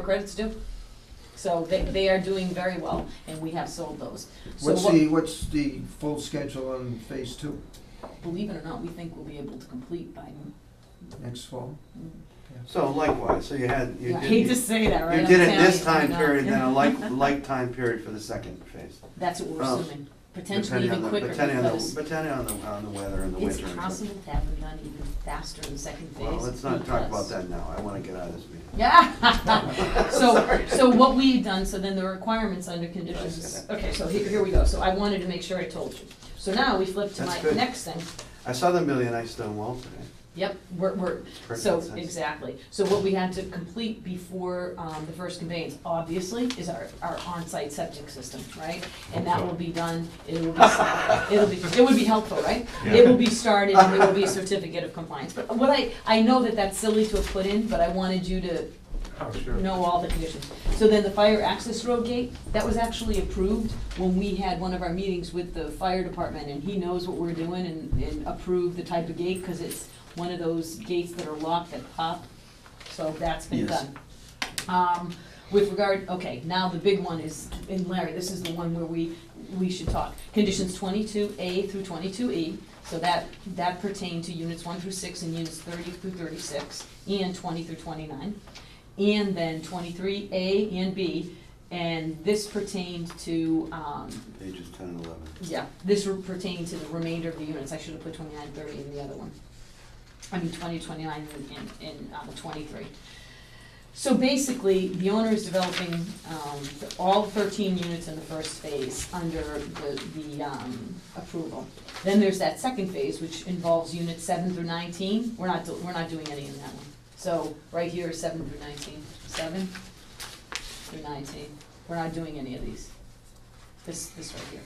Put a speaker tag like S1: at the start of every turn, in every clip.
S1: credits due. So they, they are doing very well, and we have sold those. So
S2: What's
S1: what-
S2: the, what's the full schedule on phase two,
S1: Believe it or not, we think we'll be able to complete by,
S2: next fall?
S3: So likewise, so you had, you
S1: I
S3: did,
S1: hate to say that, right?
S3: you
S1: I'm
S3: did it
S1: telling
S3: this
S1: you,
S3: time
S1: I know.
S3: period, then a like, like time period for the second phase.
S1: That's what we're
S3: Oh.
S1: assuming, potentially
S3: depending on
S1: even
S3: the-
S1: quicker
S3: Depending on
S1: because
S3: the, depending on the, on the weather and the
S1: it's
S3: winter. and so-
S1: possible to have them done even faster in the second phase.
S3: Well, let's not talk about
S1: because-
S3: that now, I wanna get out of this meeting.
S1: Yeah. So,
S3: Sorry.
S1: so what we've done, so then the requirements under
S3: I see
S1: conditions,
S3: that.
S1: okay, so here, here we go, so I wanted to make sure I told you. So now we flip to
S3: That's
S1: my
S3: good.
S1: next thing,
S3: I saw the Million Ice Stone Wall today.
S1: yep, we're, we're,
S3: It's pretty
S1: so,
S3: good sense.
S1: exactly, so what we had to complete before, um, the first conveyance, obviously, is our, our onsite septic system, right? And that will be done, it will be, it'll be, it would be helpful, right? It will be started, and there will be a certificate of compliance, but what I, I know that that's silly to have put in, but I wanted you to
S4: Oh, sure.
S1: know all the conditions. So then the fire access road gate, that was actually approved when we had one of our meetings with the fire department, and he knows what we're doing and, and approved the type of gate, cause it's one of those gates that are locked that pop, so that's been
S3: Yes.
S1: done. Um, with regard, okay, now the big one is, and Larry, this is the one where we, we should talk. Conditions twenty-two A through twenty-two E, so that, that pertain to units one through six and units thirty through thirty-six, and twenty through twenty-nine and then twenty-three A and B, and this pertained to, um,
S3: Pages ten and eleven.
S1: yeah, this re- pertained to the remainder of the units, I should have put twenty-nine, thirty in the other one. I mean, twenty, twenty-nine, and, and, and, um, twenty-three. So basically, the owner is developing, um, the- all thirteen units in the first phase under the, the, um, approval. Then there's that second phase, which involves units seven through nineteen, we're not, do- we're not doing any in that one. So, right here is seven through nineteen, seven through nineteen, we're not doing any of these. This, this right here.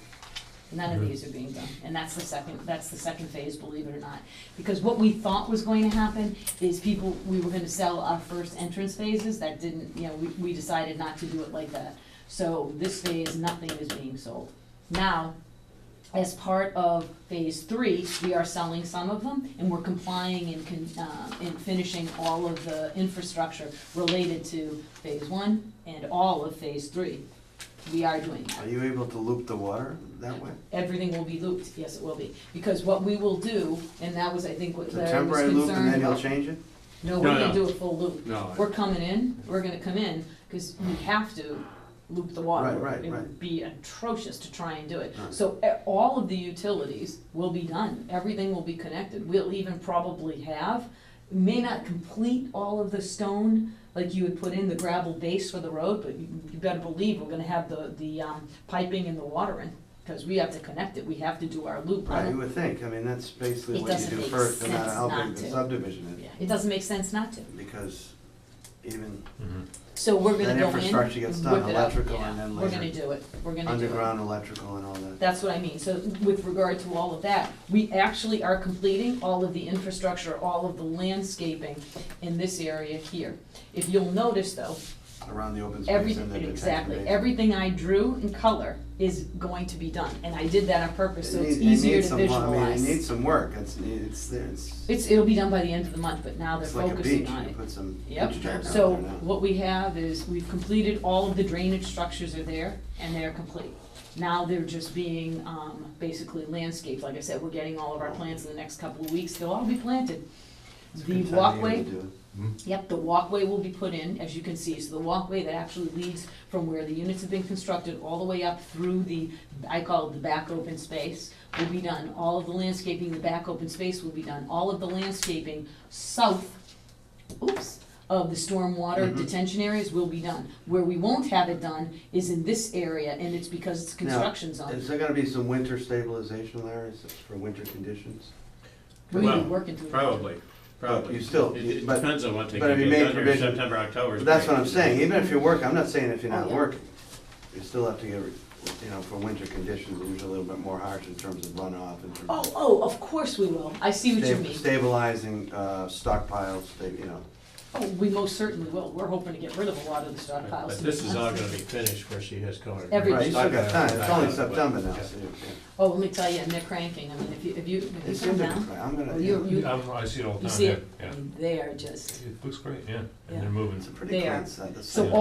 S1: None of these are being done, and that's the second, that's the second phase, believe it or not. Because what we thought was going to happen is people, we were gonna sell our first entrance phases, that didn't, you know, we, we decided not to do it like that. So this phase, nothing is being sold. Now, as part of phase three, we are selling some of them, and we're complying and con, uh, and finishing all of the infrastructure related to phase one and all of phase three. We are doing that.
S3: Are you able to loop the water that way?
S1: Everything will be looped, yes, it will be, because what we will do, and that was, I think, what
S3: It's a
S1: Larry was
S3: temporary loop and
S1: concerned
S3: then you'll
S1: about.
S3: change it?
S1: No,
S4: No,
S1: we're gonna
S4: no.
S1: do a full loop.
S4: No, I-
S1: We're coming in, we're gonna come in, cause we have to loop the water.
S3: Right, right,
S1: It would
S3: right.
S1: be atrocious to try and do it.
S3: Right.
S1: So, e- all of the utilities will be done, everything will be connected, we'll even probably have, may not complete all of the stone, like you would put in the gravel base for the road, but you, you better believe we're gonna have the, the, um, piping and the water in, cause we have to connect it, we have to do our loop. I
S3: Right,
S1: don't-
S3: you would think, I mean, that's basically
S1: It
S3: what you
S1: doesn't
S3: do
S1: make
S3: first, no matter
S1: sense
S3: how
S1: not
S3: big the
S1: to.
S3: subdivision is.
S1: Yeah, It doesn't make sense not to.
S3: Because even Mm-hmm.
S1: So we're gonna go in.
S3: that infrastructure gets done,
S1: whip it up.
S3: electrical
S1: Yeah,
S3: and then
S1: We're gonna
S3: later
S1: do it, we're gonna do it.
S3: underground electrical and all that.
S1: That's what I mean, so with regard to all of that, we actually are completing all of the infrastructure, all of the landscaping in this area here. If you'll notice though,
S3: around the open space and
S1: everything,
S3: the detention
S1: exactly,
S3: basin.
S1: everything I drew in color is going to be done, and I did that on purpose, so
S3: It
S1: it's
S3: need- it
S1: easier
S3: needs
S1: to
S3: some wo-
S1: visualize.
S3: I mean, it needs some work, it's, it's, there. it's,
S1: It's, it'll be done by the end of the month, but now they're
S3: it's like a
S1: focusing
S3: beach,
S1: on it.
S3: you put some beach
S1: Yep.
S3: jack out
S1: So
S3: there now.
S1: what we have is, we've completed, all of the drainage structures are there, and they're complete. Now they're just being, um, basically landscaped, like I said, we're getting all of our plants in the next couple of weeks, they'll all be planted.
S3: It's
S1: The
S3: a good time of year to
S1: walkway,
S3: do it.
S1: yep, the walkway will be put in, as you can see, so the walkway that actually leads from where the units have been constructed all the way up through the, I call it the back open space, will be done. All of the landscaping, the back open space will be done, all of the landscaping south oops, of the stormwater
S3: Mhm.
S1: detention areas will be done. Where we won't have it done is in this area, and it's because it's construction zone.
S3: Is there gonna be some winter stabilization there, is it for winter conditions?
S1: We're gonna be
S4: Well,
S1: working through. that.
S4: Probably, probably.
S3: You still-
S4: It- It
S3: but-
S4: depends on what they
S3: but
S4: can
S3: have you
S4: get
S3: made
S4: done here,
S3: provision-
S4: September, October.
S3: But that's
S4: spring.
S3: what I'm saying, even if you're working, I'm not saying if you're
S1: Oh,
S3: not
S1: yeah.
S3: working, you still have to get, you know, for winter conditions, they're usually a little bit more harsh in terms of runoff, in terms
S1: Oh,
S3: of
S1: oh, of course we will. I see what you
S3: sta-
S1: mean.
S3: stabilizing, uh, stockpiles, they, you know.
S1: Oh, we most certainly will. We're hoping to get rid of a lot of the
S4: But
S1: stockpiles.
S4: but
S1: to
S4: this
S1: be
S4: is all
S1: honest
S4: gonna
S1: with
S4: be finished where she has colored.
S1: Every-
S3: Right, you still got time, it's only
S4: But-
S3: September now,
S4: yeah.
S3: so you
S1: you. Oh, let me tell you, and they're cranking. I mean, if you, if you,
S3: yeah. It
S1: if you come
S3: seemed to,
S1: down,
S3: I'm
S1: Oh, you-
S3: gonna,
S1: you-
S5: Um, I see it all the
S1: you
S5: time,
S1: see
S5: yeah,
S1: it,
S5: yeah.
S1: they are just.
S5: It looks great, yeah,
S1: Yeah.
S5: and they're moving.
S3: it's a pretty
S1: There.
S3: clean set, the
S1: So
S3: site.